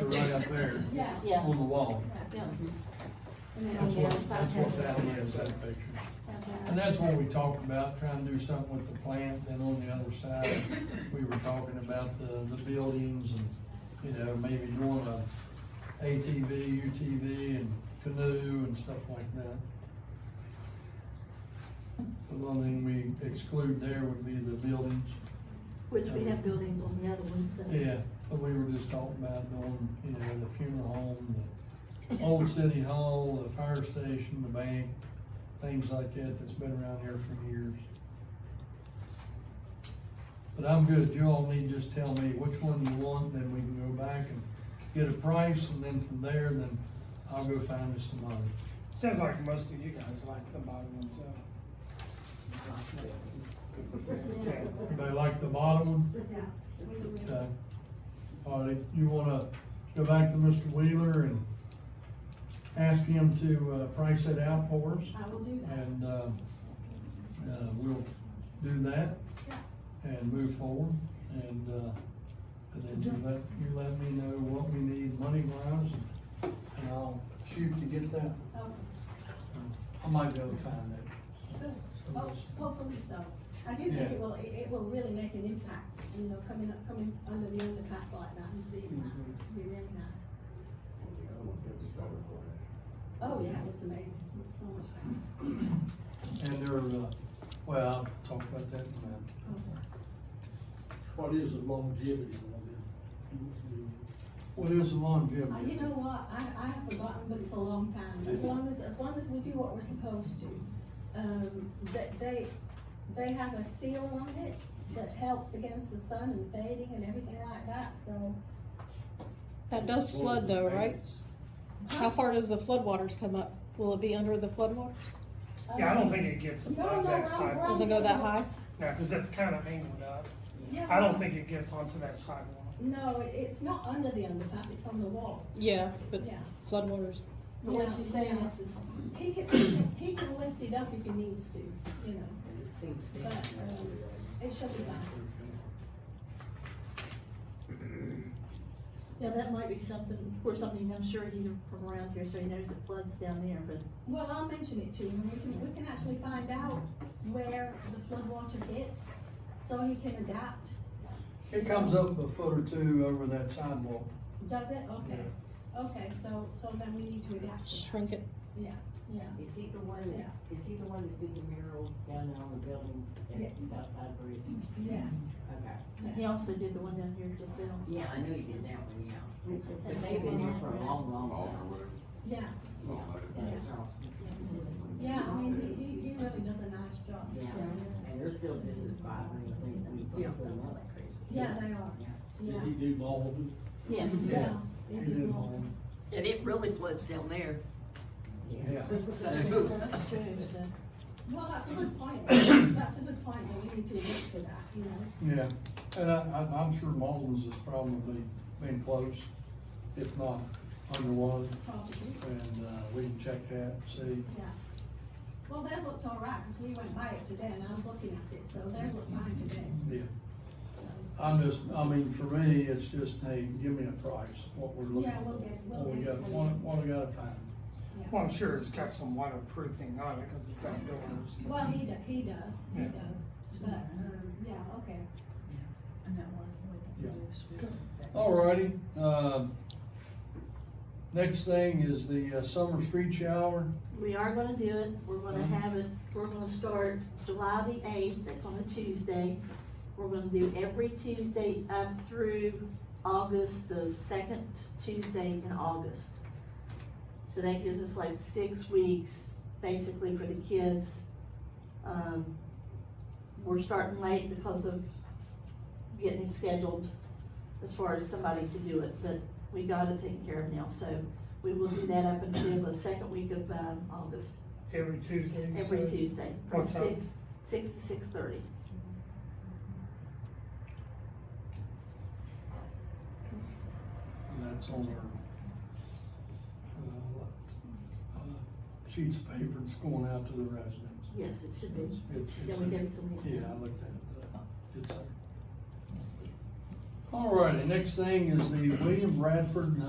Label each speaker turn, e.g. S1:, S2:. S1: right there
S2: Yeah.
S3: Yeah.
S1: on the wall.
S2: Yeah. And then on
S1: That's
S2: the
S1: what,
S2: other side.
S1: that's what's out on the other side of the picture. And that's what we talked about, trying to do something with the plant, then on the other side, we were talking about the, the buildings and, you know, maybe doing a ATV, UTV and canoe and stuff like that. The one thing we exclude there would be the buildings,
S3: Which we have buildings on the other one, so.
S1: yeah, but we were just talking about doing, you know, the funeral home, the old city hall, the fire station, the bank, things like that that's been around here for years. But I'm good, you all need to just tell me which one you want, then we can go back and get a price, and then from there, then I'll go find us some money.
S4: Sounds like most of you guys like the bottom ones, uh. Okay.
S1: Anybody like the bottom one? Okay. Uh, All right, you wanna go back to Mr. Wheeler and ask him to, uh, price it out for us?
S2: I will do that.
S1: And, uh, uh, we'll do that and move forward and, uh, and then you let, you let me know what we need money wise and I'll shoot to get that.
S2: Okay.
S1: I might be able to find that.
S2: Ho- Hopefully so. I do think
S1: Yeah.
S2: it will, it, it will really make an impact, you know, coming up, coming under the underpass like that and seeing that. It'd be really nice. Oh, yeah, it was amazing. It was so much fun.
S1: And there, uh, well, I'll talk about that in a minute.
S2: Okay.
S5: What is the longevity of it?
S1: What is the longevity?
S2: Uh, you know what? I, I have forgotten, but it's a long time. As long as, as long as we do what we're supposed to. Um, they, they, they have a seal on it that helps against the sun and fading and everything like that, so.
S6: That does flood though, right? How far does the flood waters come up? Will it be under the flood waters?
S4: Yeah, I don't think it gets
S2: No,
S4: above
S2: no,
S4: that
S2: no,
S4: sidewalk,
S6: Does it go that high?
S4: no, cause that's kinda angled up,
S2: Yeah,
S4: I don't think it gets onto that sidewalk.
S2: No, it's not under the underpass, it's on the wall,
S6: Yeah, but
S2: yeah.
S6: flood waters.
S2: But
S7: What she's saying is, is
S2: He can, he can, he can lift it up if he needs to, you know, but, um, it should be fine.
S7: yeah, that might be something, of course, I mean, I'm sure he's from around here, so he knows it floods down there, but
S2: Well, I'll mention it to him, we can, we can actually find out where the flood water hits, so he can adapt,
S1: It comes up a foot or two over that sidewalk.
S2: does it? Okay, okay, so, so then we need to adapt to that,
S6: Shrink it.
S2: yeah.
S8: Is he the one that, is he the one that did the murals down on the buildings
S2: Yeah.
S8: at Southside Bridge?
S2: Yeah,
S8: Okay.
S7: he also did the one down here as well.
S8: Yeah, I knew he did that one, yeah. But they've been here for a long, long time.
S2: yeah,
S8: Yeah, so-
S2: yeah, I mean, he, he, he really does a nice job.
S8: Yeah, and they're still just as vibrant as they, I mean, they're still like crazy.
S2: Yeah, they are, yeah,
S5: Did he do all of it?
S7: Yes,
S2: yeah.
S1: He
S2: they
S1: did
S2: do all-
S1: hold.
S9: And it really floods down there,
S1: Yeah.
S9: so.
S7: that's true, so.
S2: Well, that's a good point, that's a good point, that we need to look for that, you know?
S1: Yeah, and I, I'm, I'm sure Malton's is probably been close, if not underwater,
S2: Probably,
S1: and, uh, we can check that, see.
S2: yeah. Well, theirs looked all right, because we went by it today, and I was looking at it, so theirs looked fine today.
S1: Yeah. I'm just, I mean, for me, it's just, hey, give me a price, what we're looking
S2: Yeah,
S1: for.
S2: we'll get- we'll
S1: What we
S2: get it
S1: got,
S2: for you.
S1: what, what I gotta find.
S4: Well, I'm sure it's got some waterproofing on it, cause it's outdoors.
S2: Well, he does, he does, he
S4: Yeah.
S2: does, but, um, yeah, okay.
S1: Alrighty, um, next thing is the uh, summer street shower.
S7: We are gonna do it, we're gonna have it, we're gonna start July the eighth, that's on a Tuesday. We're gonna do every Tuesday up through August, the second Tuesday in August. So that gives us like six weeks, basically, for the kids. Um, we're starting late because of getting scheduled as far as somebody to do it, but we got it taken care of now, so we will do that up until the second week of, um, August,
S4: Every Tuesday. you
S7: every
S4: said?
S7: Tuesday, from
S4: What time?
S7: six, six to six thirty.
S1: And that's on our, uh, uh, sheets of paper that's going out to the residents.
S7: Yes, it should be.
S1: It's- it's-
S7: Then we give it to
S1: Yeah,
S7: them.
S1: I looked at it, but it's there. All righty, next thing is the William Bradford and